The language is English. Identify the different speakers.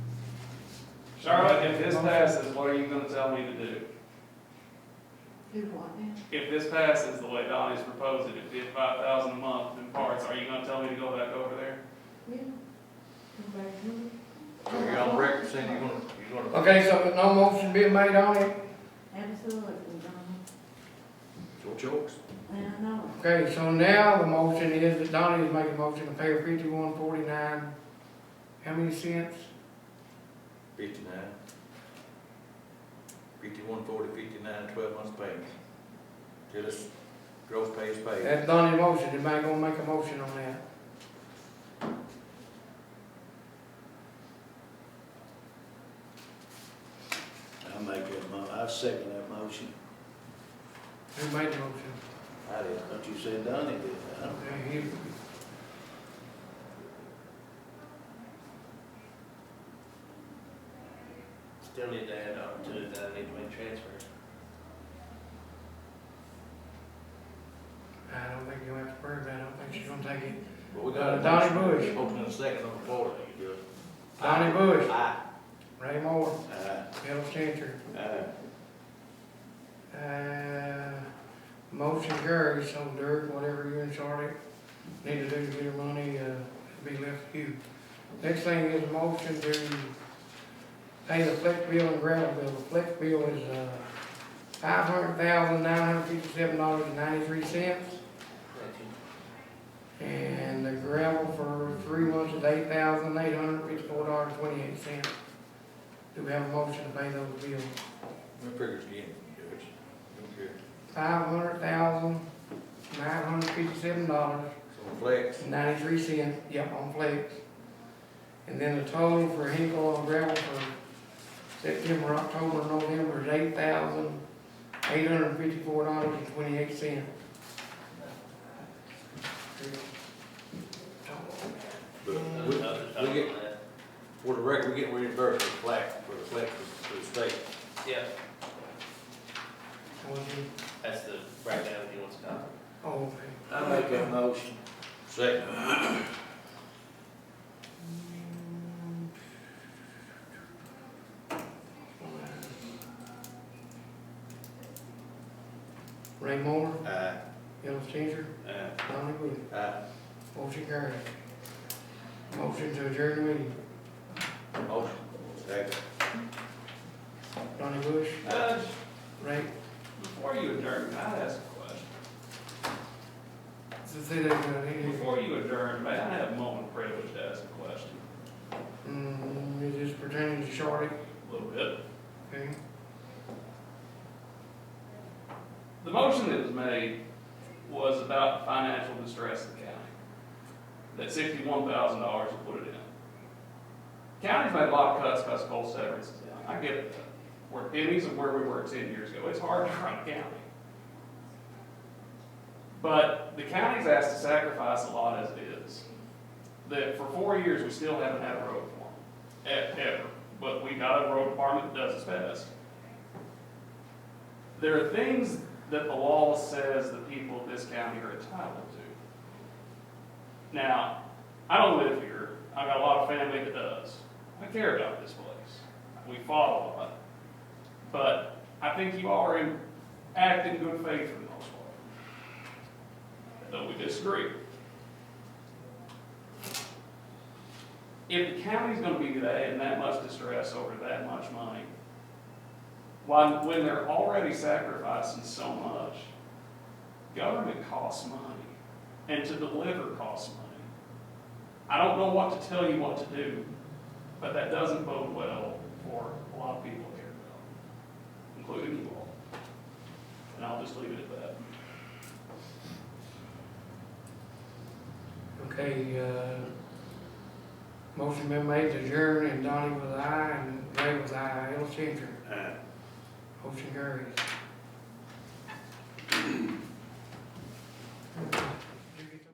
Speaker 1: Charlotte, if this passes, what are you gonna tell me to do?
Speaker 2: Do what now?
Speaker 1: If this passes the way Donnie's proposed it, if it's five thousand a month in parts, are you gonna tell me to go back over there?
Speaker 2: Yeah. Go back home.
Speaker 3: You're on record saying you're gonna, you're gonna,
Speaker 4: Okay, so no motion being made on it?
Speaker 2: Absolutely, Donnie.
Speaker 3: your choice.
Speaker 2: And I know.
Speaker 4: Okay, so now the motion is that Donnie is making a motion to pay her fifty-one forty-nine. How many cents?
Speaker 3: Fifty-nine. Fifty-one, forty, fifty-nine, twelve months payment. Till this gross pay is paid.
Speaker 4: That's Donnie's motion. Anybody gonna make a motion on that?
Speaker 5: I make that mo, I second that motion.
Speaker 4: Who made the motion?
Speaker 5: I did, but you said Donnie did, I don't.
Speaker 4: Okay, he-
Speaker 6: Still need to add opportunities that I need to make transfers.
Speaker 4: I don't think you'll have to worry about it. I don't think she's gonna take it.
Speaker 3: But we got a
Speaker 4: Donnie Bush.
Speaker 3: motion. Motion and a second on the floor. You do it.
Speaker 4: Donnie Bush,
Speaker 5: Aye.
Speaker 4: Ray Moore,
Speaker 5: Aye.
Speaker 4: Bill Changer.
Speaker 5: Aye.
Speaker 4: Uh, motion carries, so Dirk, whatever you and Charlie need to do to get your money, uh, be left to you. Next thing is motion to pay the flex bill and gravel bill. The flex bill is, uh, five hundred thousand, nine hundred fifty-seven dollars and ninety-three cents. And the gravel for three months is eight thousand, eight hundred fifty-four dollars, twenty-eight cents. Do we have a motion to pay those bills?
Speaker 3: We figure it again, Judge. Don't care.
Speaker 4: five hundred thousand, nine hundred fifty-seven dollars,
Speaker 3: So flex,
Speaker 4: ninety-three cents, yep, on flex. And then the total for Hinkle and gravel for September, October, November is eight thousand, eight hundred fifty-four dollars and twenty-eight cents.
Speaker 3: but we, we get, for the record, we get reimbursed for flex, for the flex, for the state.
Speaker 6: Yeah,
Speaker 4: Would you,
Speaker 6: that's the breakdown if you want to know.
Speaker 5: I
Speaker 4: oh,
Speaker 5: make that motion.
Speaker 3: Second.
Speaker 4: Ray Moore,
Speaker 3: Aye.
Speaker 4: Ellis Changer,
Speaker 3: Aye.
Speaker 4: Donnie Bush.
Speaker 3: Aye.
Speaker 4: Motion carried. Motion to adjourn the meeting.
Speaker 3: Motion. Second.
Speaker 4: Donnie Bush,
Speaker 1: Judge,
Speaker 4: Ray,
Speaker 1: Uh, before you adjourn, may I ask a question?
Speaker 4: say that, uh, he-
Speaker 1: Before you adjourn, may I have a moment of privilege to ask a question?
Speaker 4: mm, it is pertaining to Shorty,
Speaker 1: A little bit.
Speaker 4: okay?
Speaker 1: The motion that was made was about financial distress of the county. That sixty-one thousand dollars will put it in. County's made a lot of cuts, cuts coal severance. I get that. We're pennies of where we were ten years ago. It's hard to run a county. But the county's asked to sacrifice a lot as it is. That for four years, we still haven't had a road department, e- ever. But we got a road department that does its best. There are things that the law says the people of this county are entitled to. Now, I don't live here, I've got a lot of family that does. I care about this place, we fought a lot. But I think you are in, act in good faith for the most part. Though we disagree. If the county's gonna be that, in that much distress over that much money, when, when they're already sacrificing so much, government costs money, and to deliver costs money. I don't know what to tell you what to do, but that doesn't bode well for a lot of people here, including you all. And I'll just leave it at that.
Speaker 4: Okay, uh, motion been made to adjourn, and Donnie was aye, and Ray was aye, Ellis Changer.
Speaker 5: Aye.
Speaker 4: Motion carries.